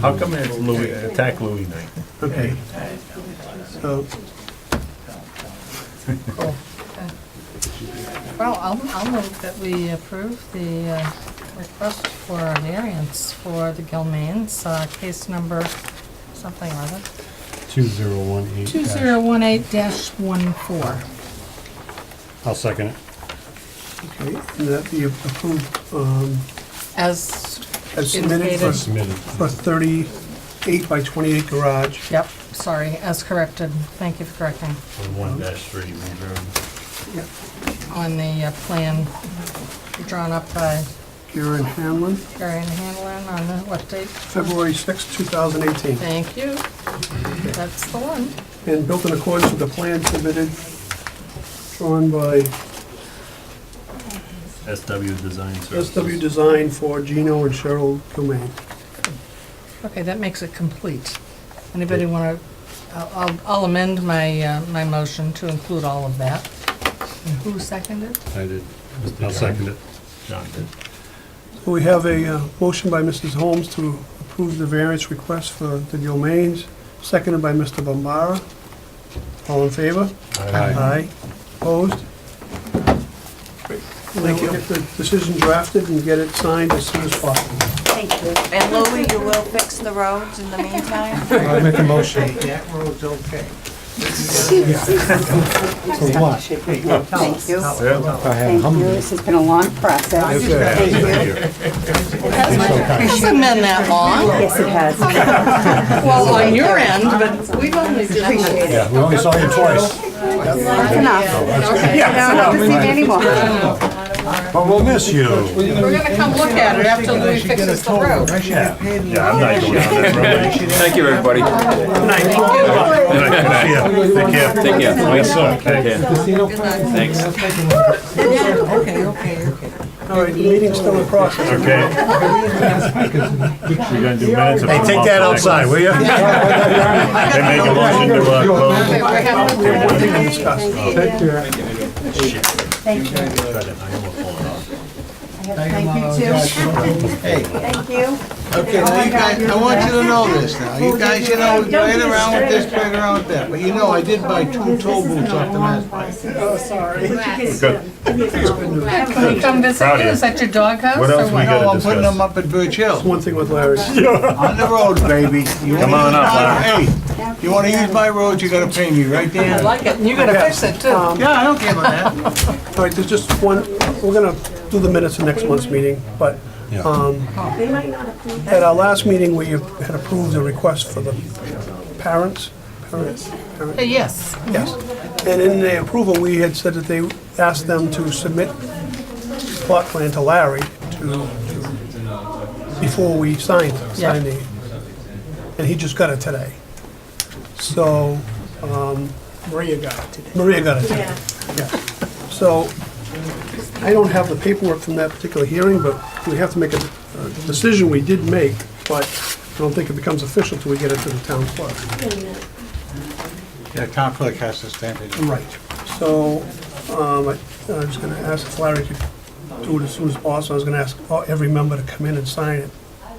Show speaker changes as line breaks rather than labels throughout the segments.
How come it's Louis, attack Louis night?
Okay. So,
Well, I'll, I'll move that we approve the uh, request for a variance for the Gilmains, uh, case number something or other.
2018.
2018-14.
I'll second it.
Okay, and that be approved um,
As,
as submitted for-
Indicated.
Submitted.
for 38 by 28 garage.
yep, sorry, as corrected, thank you for correcting,
One dash three, remember?
Yep.
on the uh, plan drawn up by
Karen Hanlon,
Gary and Hanlon on the, what date?
February 6, 2018.
Thank you. That's the one.
and built in accordance with the plan submitted, drawn by
SW Design Services.
SW Design for Gino and Cheryl Gilmain.
Okay, that makes it complete. Anybody want to, I'll I'll amend my, uh, my motion to include all of that. And who seconded?
I did. I'll second it.
John did.
So We have a uh, motion by Mrs. Holmes to approve the variance request for the Gilmains, seconded by Mr. Bombara. All in favor? Aye. Opposed? Thank you. We'll get the decision drafted and get it signed as soon as possible.
Thank you. And Louis, you will fix the roads in the meantime?
I make a motion.
That road's okay.
For what?
Thank you.
I have
Thank you.
humble.
This has been a long process. Thank you.
It's been that long.
Yes, it has.
Well, on your end, but we've only
Appreciate it.
Yeah, we only saw you twice,
That's enough. You don't have to see me anymore.
but we'll miss you.
We're going to come look at it after Louis fixes the road.
I should have paid
Yeah, I'm not going on that road.
Thank you, everybody.
Take care.
Take care.
Nice suck.
Thanks.
Okay, okay, okay.
All right, the meeting's still in process.
Okay.
We're gonna do minutes. of
Hey, take
the month
that
next.
outside, will you?
They make a motion to, uh, close.
We're having-
We have nothing to discuss.
Take care.
Thank you. Thank you too. Thank you.
Okay, now you guys, I want you to know this now. You guys, you know, we played around with this, played around with that, but you know, I did buy two tow boots off the Mass
Oh, sorry.
Can we come visit you?
Claudia.
Is that your doghouse
What else
or
we
what?
gotta
No, I'm putting
discuss?
them up at Birch Hill,
One thing with Larry.
on the road, baby.
Come on up, Larry.
Hey, you wanna use my road, you gotta pay me, right, Dan?
like it, and you're going to fix it
Um,
too.
Yeah, I don't care about that.
All right, there's just one, we're gonna do the minutes of next month's meeting, but, um, at our last meeting, we had approved the request for the parents, parents, parents,
Yes.
yes. And in the approval, we had said that they asked them to submit plot plan to Larry to, to- before we signed, signed the, and he just got it today. So, um,
Maria got it today.
Maria got it. Yeah. So, I don't have the paperwork from that particular hearing, but we have to make a a decision we did make, but I don't think it becomes official till we get it to the town clerk.
Yeah, town clerk has to stamp it.
Right. So, um, I I was gonna ask if Larry could do it as soon as possible. I was gonna ask all- every member to come in and sign it,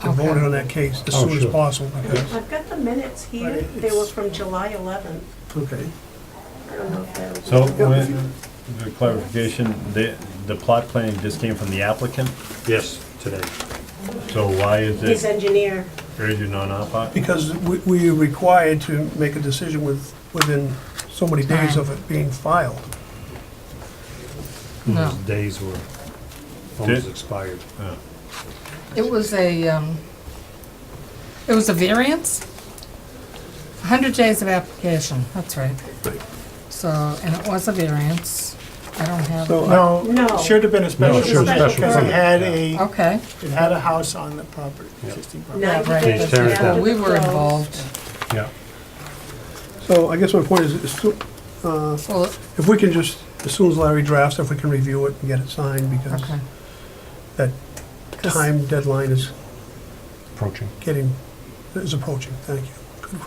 to vote on that case as soon as
Oh, sure.
possible, because,
I've got the minutes here.
Right,
They were
it's-
from July 11th.
okay.
I don't know if that'll be-
So, when- the clarification, the, the plot plan just came from the applicant,
Yes, today.
so why is
His
it
engineer.
urgent non-op?
Because we, we are required to make a decision with, within so many days of it being filed.
No.
Those days were almost expired.
It was a, um, it was a variance? 100 days of application, that's right. So, and it was a variance. I don't have,
So, I-
No,
No.
have been a
No, it should
special
Because it
permit.
had a,
okay.
it had a house on the property, existing property.
Ninety
right.
days
Tear it
after
down.
the
We were
close.
involved.
Yeah.
so I guess my point is, is to-
Well,
if we can just, as soon as Larry drafts, if we can review it and get it signed, because
okay.
that
'Cause-
time deadline is
Approaching.
getting, is approaching, thank you. Good.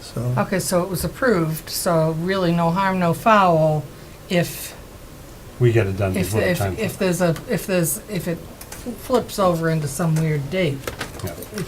So,
Okay, so it was approved, so really no harm, no foul if,
We get it done
if,
before the
if,
time.
if there's a, if there's, if it flips over into some weird date. Yeah.